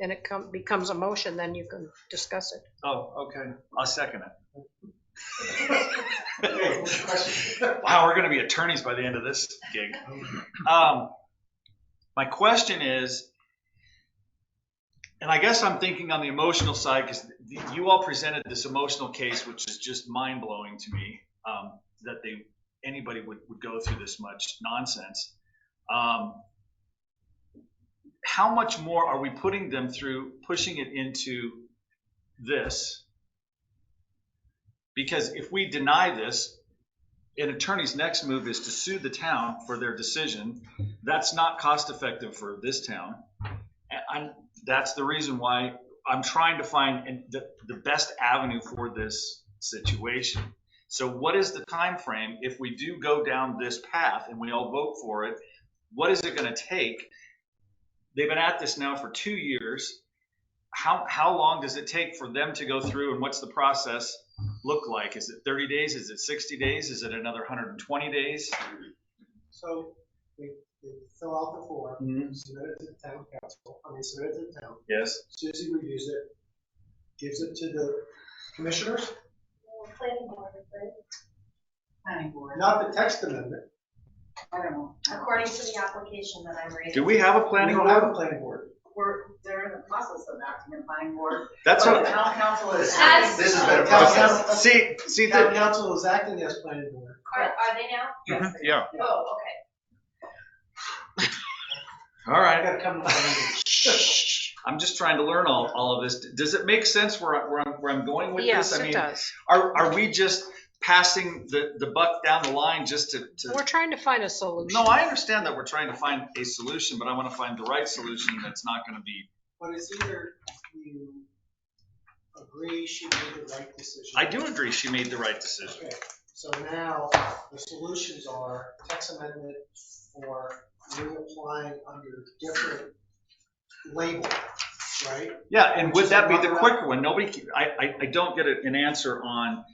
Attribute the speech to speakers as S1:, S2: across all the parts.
S1: and it come, becomes a motion, then you can discuss it.
S2: Oh, okay. I'll second
S3: Hey,
S2: it.
S3: what's your question?
S2: Wow, we're gonna be attorneys by the end of this gig. Um, my question is, and I guess I'm thinking on the emotional side, because you all presented this emotional case, which is just mind blowing to me, um, that they, anybody would, would go through this much nonsense. Um, how much more are we putting them through, pushing it into this? Because if we deny this, an attorney's next move is to sue the town for their decision. That's not cost effective for this town. And I'm, that's the reason why I'm trying to find an- the, the best avenue for this situation. So what is the time frame if we do go down this path and we all vote for it? What is it gonna take? They've been at this now for two years. How, how long does it take for them to go through and what's the process? look like? Is it 30 days? Is it 60 days? Is it another 120 days?
S3: So they, they fill out the form, submit it to the town council, I mean, submit it to the town.
S2: Yes.
S3: Susie reviews it, gives it to the commissioners,
S4: Planning board, right?
S5: planning board.
S3: not the text amendment.
S5: I don't know.
S4: According to the application that I'm reading.
S2: Do we have a planning
S3: We don't have
S2: board?
S3: a planning board.
S5: We're, they're in the process of acting a planning board.
S2: That's
S5: But the
S2: what.
S5: town council is.
S4: As-
S5: acting-
S4: This has
S3: been a process.
S2: See, see the.
S3: Town council is acting as planning board.
S4: Are, are they now?
S5: Yes.
S2: Yeah.
S4: Oh, okay.
S2: All
S3: I
S2: right.
S3: gotta come to the meeting.
S2: I'm just trying to learn all, all of this. Does it make sense where, I- where I'm, where I'm going with
S1: Yes,
S2: this? I
S1: it
S2: mean,
S1: does.
S2: are, are we just passing the, the buck down the line just to,
S1: We're
S2: to?
S1: trying to find a solution.
S2: No, I understand that we're trying to find a solution, but I want to find the right solution that's not going to be.
S3: But it's either you agree she made the right decision.
S2: I do agree she made the right decision.
S3: Okay, so now the solutions are text amendment or reapplying under different label, right?
S2: Yeah, and
S3: Which
S2: would
S3: is
S2: that be the
S3: another-
S2: quicker one? Nobody, ke- I, I, I don't get a- an answer on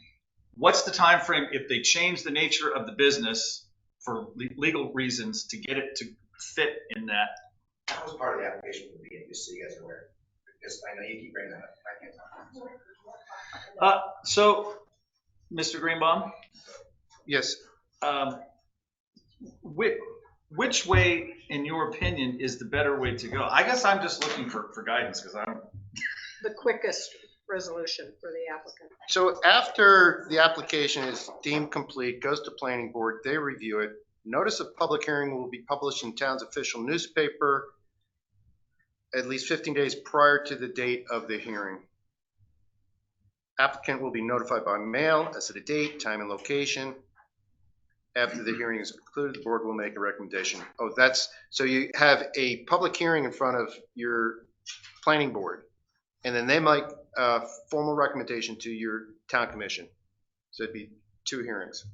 S2: what's the time frame if they change the nature of the business for le- legal reasons to get it to fit in that.
S6: That was part of the application from the beginning, just so you guys are aware, because I know you keep bringing that up, I can't talk.
S2: So, Mr. Greenbaum,
S7: Yes,
S2: um, which, which way, in your opinion, is the better way to go? I guess I'm just looking for, for guidance because I don't,
S1: The quickest resolution for the applicant.
S7: so after the application is deemed complete, goes to planning board, they review it. Notice of public hearing will be published in town's official newspaper at least 15 days prior to the date of the hearing. Applicant will be notified by mail as to the date, time, and location. After the hearing is concluded, the board will make a recommendation. Oh, that's, so you have a public hearing in front of your planning board, and then they might a formal recommendation to your town commission. So it'd be two hearings.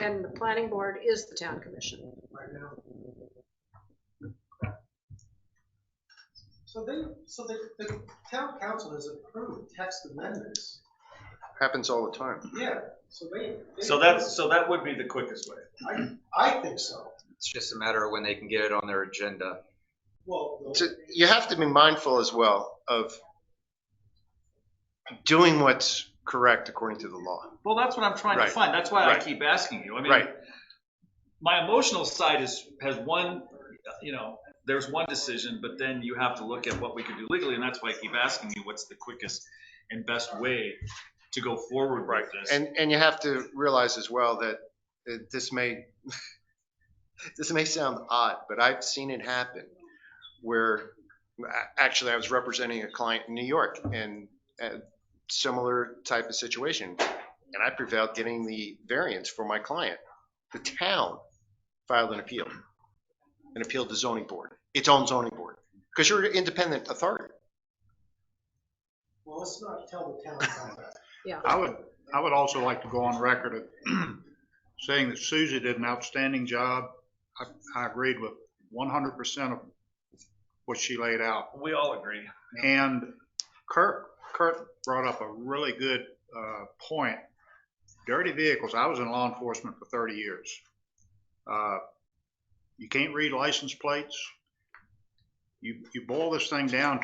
S1: And the planning board is the town commission.
S3: Right now. So they, so the, the town council has approved text amendments.
S7: Happens all the time.
S3: Yeah, so they. they-
S2: so that's, so that would be the quickest way.
S3: I think so.
S8: It's just a matter of when they can get it on their agenda.
S3: Well,
S7: So You have to be mindful as well of doing what's correct according to the law.
S2: Well, that's what I'm trying to
S7: Right.
S2: find. That's why I
S7: Right.
S2: keep asking you. I mean,
S7: Right.
S2: my emotional side is has one, you know, there's one decision, but then you have to look at what we could do legally, and that's why I keep asking you what's the quickest and best way to go forward with this.
S7: And, and you have to realize as well that uh, this may, this may sound odd, but I've seen it happen where, a- actually, I was representing a client in New York and a similar type of situation. And I prevailed getting the variance for my client. The town filed an appeal, an appeal to zoning board, its own zoning board, because you're an independent authority.
S3: well, let's not tell the town council.
S9: I would, I would also like to go on record of saying that Susie did an outstanding job. I, I agreed with one hundred percent of what she laid out.
S2: we all agree.
S9: And Kurt, Kurt brought up a really good uh, point. Dirty vehicles, I was in law enforcement for 30 years. Uh, You can't read license plates. You, you boil this thing down